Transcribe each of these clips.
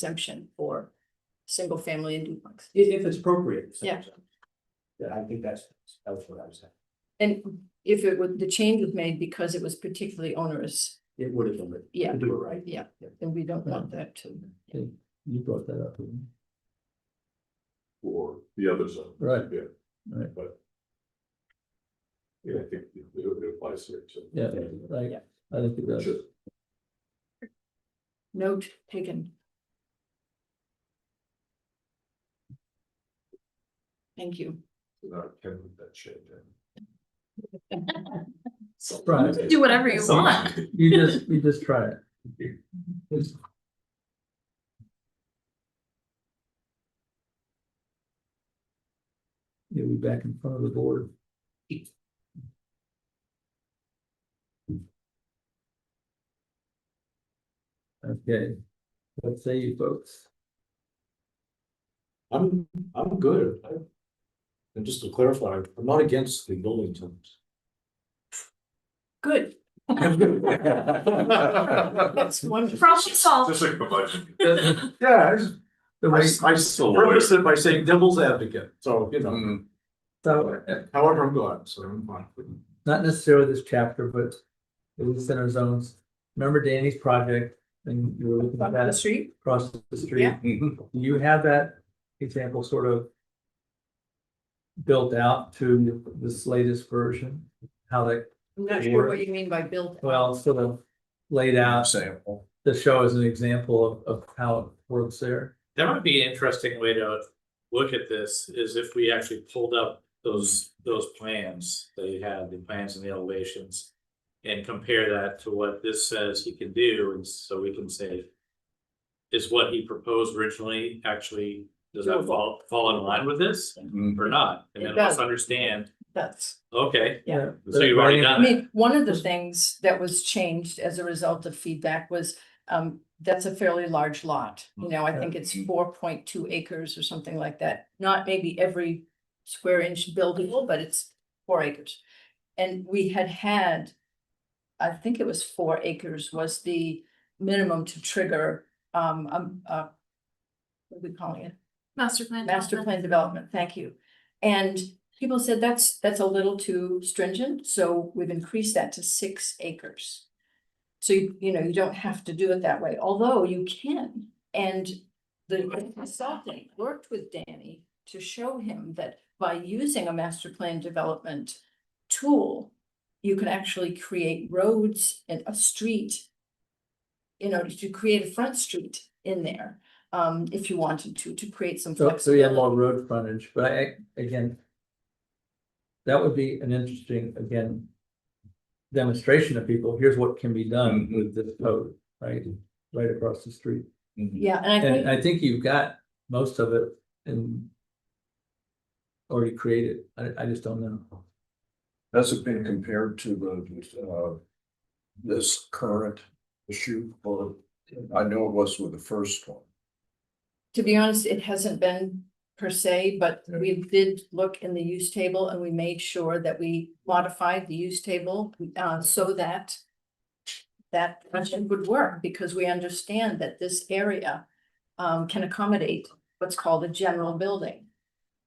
exemption for single family and duplex. If, if it's appropriate. so- Yeah. Yeah, I think that's, that was what I was saying. And if it would, the change was made because it was particularly onerous, It would have been, but Yeah. to do it right. yeah, then we don't want that to. You brought that up, didn't for the other zone. you? Right. Yeah. Right. But. Yeah, I think it it applies here too. Yeah, like, Yeah. I think it does. Sure. Note taken. Thank you. Not Ken with that shit. Right, Do whatever you want. you just, you just try it. You'll be back in front of the board. Okay, let's say you folks, I'm, I'm good. I- And just to clarify, I'm not against the building terms. Good, that's wonderful. Problem solved. Just like my budget. Yeah, I just- the I, way, I still purpose it by saying devil's advocate, so, you know, Mm. so, uh, however I'm going, so I'm fine. not necessarily this chapter, but it was center zones. Remember Danny's project and you were looking at On the that street, across the street? Yeah. Do you have that example sort of built out to this latest version? How that, I'm not sure what you mean by built. well, sort of laid out Sample. to show as an example of, of how it works there? That might be an interesting way to look at this, is if we actually pulled up those, those plans, they had the plans and the elevations. And compare that to what this says he can do, and so we can say. Is what he proposed originally actually, does that fall, fall in line with this Mm-hmm. or not? And It then let's does. understand, That's, okay, Yeah. so you've already I done it, mean, one of the things that was changed as a result of feedback was, um, that's a fairly large lot. You know, I think it's four point two acres or something like that, not maybe every square inch buildable, but it's four acres. And we had had, I think it was four acres was the minimum to trigger, um, um, uh, what are we calling it? Master plan. Master plan development, thank you. And people said that's, that's a little too stringent, so we've increased that to six acres. So you, you know, you don't have to do it that way, although you can. And the consultant worked with Danny to show him that by using a master plan development tool, you can actually create roads and a street, you know, to create a front street in there, um, if you wanted to, to create some So, so we have flexibility. more road frontage, but I, again, that would be an interesting, again, demonstration of people, here's what can be done with this code, right? Right across the street. mm-hmm. Yeah, and I think. And I think you've got most of it in. Already created, I, I just don't know. Has it been compared to the, uh, this current issue? Well, I know it was with the first one. To be honest, it hasn't been per se, but Yeah. we Mm-hmm. did look in the use table and we made sure that we modified the use table, uh, so that that function would work because we understand that this area, um, can accommodate what's called a general building.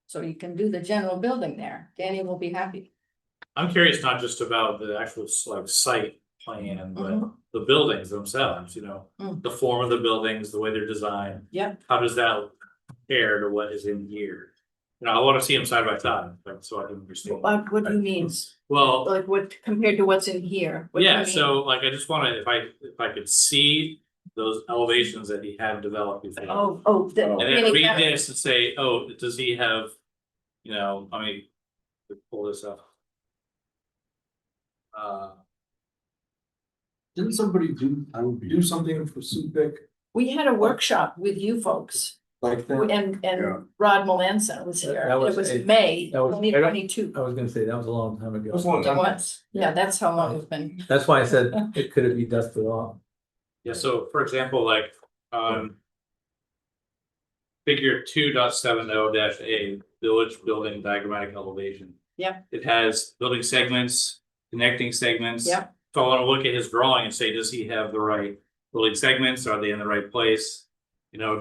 So you can do the general building there. Danny will be happy. I'm curious not just about the actual like site plan, but Mhm. the buildings themselves, you know, Mm. the form of the buildings, the way they're designed. Yep. How does that compare to what is in here? You know, I wanna see them side by side, like, so I can understand. What, what do you mean? Well, Like what compared to what's in here? What do you yeah, mean? so like, I just wanna, if I, if I could see those elevations that he had developed before. Oh, oh. the- And then yeah, read this and say, oh, does he have, you know, I mean, let's pull this up. Uh, Didn't somebody do, I would do something for Subic We had a workshop with you folks. like that? And, Yeah. and Rod Melanson was That- here. that It was was a- May that was- twenty twenty-two. I was gonna say, that was a long time ago. It was, yeah, that's how long it's been. That's why I said it could have been dusted off. Yeah, so for example, like, um. Figure two dot seven oh dash A, village building diagrammatic elevation. Yeah. It has building segments, connecting segments. Yeah. So I wanna look at his drawing and say, does he have the right building segments? Are they in the right place? You know,